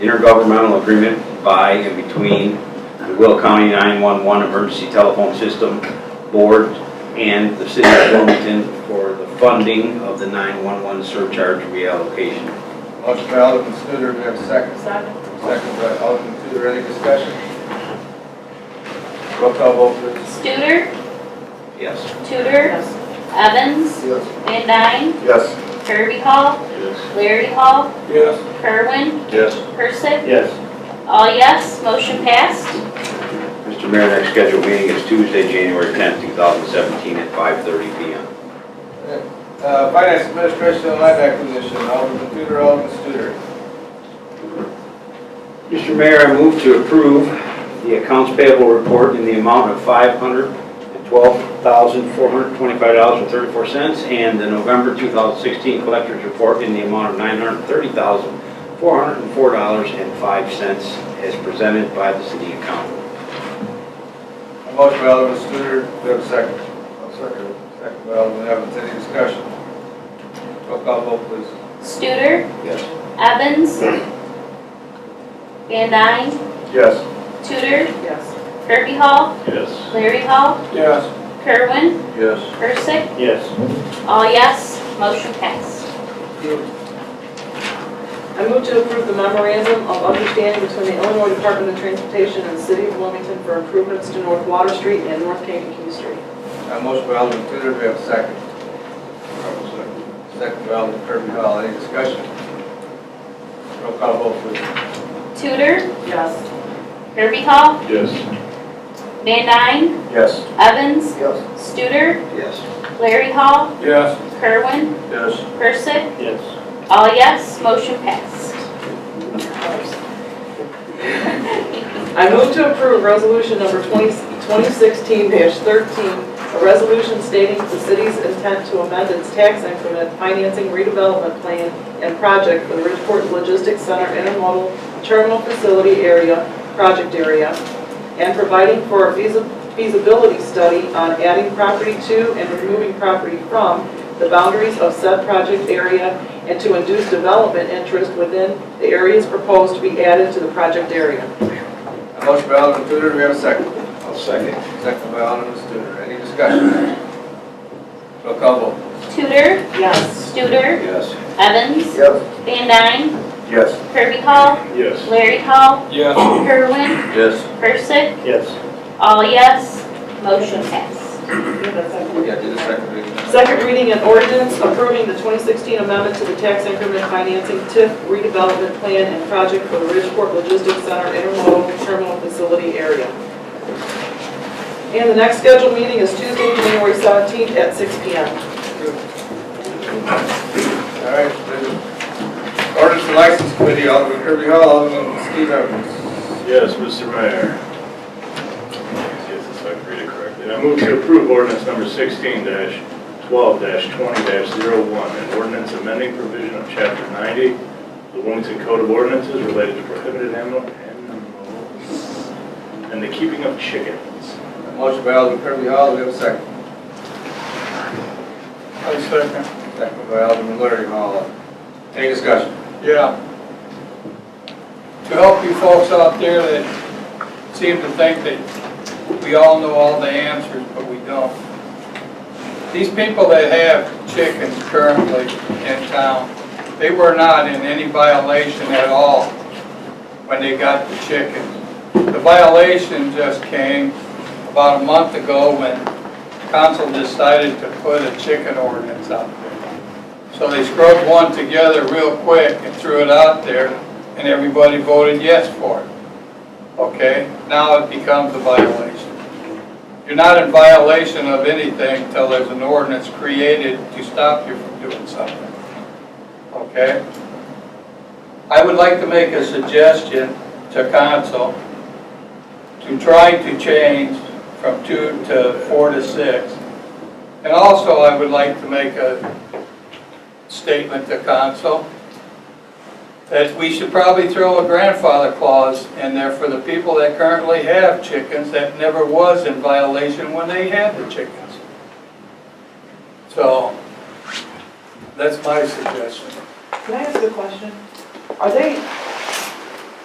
intergovernmental agreement by and between the Will County 911 Emergency Telephone System Board and the City of Wilmington for the funding of the 911 surcharge reallocation. Motion by Alderman Studer, do we have a second? Second. Second by Alderman Studer, any discussion? Roll call vote, please. Studer, Yes. Tudor, Yes. Evans, Yes. Van Dyne, Yes. Kirby Hall, Yes. Larry Hall, Yes. Kerwin, Yes. Percy. Yes. All yes, motion passed. Mr. Mayor, next scheduled meeting is Tuesday, January 10th, 2017 at 5:30 PM. Uh, Finance Administration and Land Acquisition, Alderman Studer, Alderman Studer. Mr. Mayor, I move to approve the accounts payable report in the amount of $512,425.34 and the November 2016 collector's report in the amount of $930,404.05 as presented by the city accountant. A Motion by Alderman Studer, do we have a second? Second. Second by Alderman Evans, any discussion? Roll call vote, please. Studer, Yes. Evans, Van Dyne, Yes. Tudor, Yes. Kirby Hall, Yes. Larry Hall, Yes. Kerwin, Yes. Percy. Yes. All yes, motion passed. I move to approve the memorandum of understanding between the Illinois Department of Transportation and the City of Wilmington for improvements to North Water Street and North Kankakee Street. A motion by Alderman Tudor, do we have a second? Second by Alderman Kirby Hall, any discussion? Roll call vote, please. Tudor, Yes. Kirby Hall, Yes. Van Dyne, Yes. Evans, Yes. Studer, Yes. Larry Hall, Yes. Kerwin, Yes. Percy. Yes. All yes, motion passed. I move to approve resolution number 20 2016-13, a resolution stating the city's intent to amend its tax increment financing redevelopment plan and project for the Bridgeport Logistics Center Intermodal Terminal Facility Area, project area, and providing for a feasi- feasibility study on adding property to and removing property from the boundaries of said project area and to induce development interest within the areas proposed to be added to the project area. A motion by Alderman Tudor, do we have a second? I'll second. Second by Alderman Studer, any discussion? Roll call vote. Tudor, Yes. Studer, Yes. Evans, Yes. Van Dyne, Yes. Kirby Hall, Yes. Larry Hall, Yes. Kerwin, Yes. Percy. Yes. All yes, motion passed. Yeah, do the second reading. Second reading and ordinance approving the 2016 amendment to the tax increment financing TIF redevelopment plan and project for the Ridgeport Logistics Center intermodal terminal facility area. And the next scheduled meeting is Tuesday, January 17th at 6 PM. All right, then. Ordinance and License Committee, Alderman Kirby Hall, Alderman Steve Evans. Yes, Mr. Mayor. Let me See if I can read it correctly. I move to approve ordinance number sixteen twelve twenty one an ordinance amending provision of chapter ninety, of the Wilmington Code of Ordinances related to prohibited animal animals and the keeping of chickens. A Motion by Alderman Kirby Hall, do we have a second? I second. Second by Alderman Larry Hall. Any discussion? Yeah. To help you folks out there that seem to think that we all know all the answers, but we don't. These people that have chickens currently in town, they were not in any violation at all when they got the chickens. The violation just came about a month ago when council decided to put a chicken ordinance out there. So they scrubbed one together real quick and threw it out there, and everybody voted yes for it. Okay, now it becomes a violation. You're not in violation of anything till there's an ordinance created to stop you from doing something. Okay? I would like to make a suggestion to council to try to change from two to four to six. And also, I would like to make a statement to council, that we should probably throw a grandfather clause in there for the people that currently have chickens that never was in violation when they had the chickens. So, that's my suggestion. Can I ask a question? Are they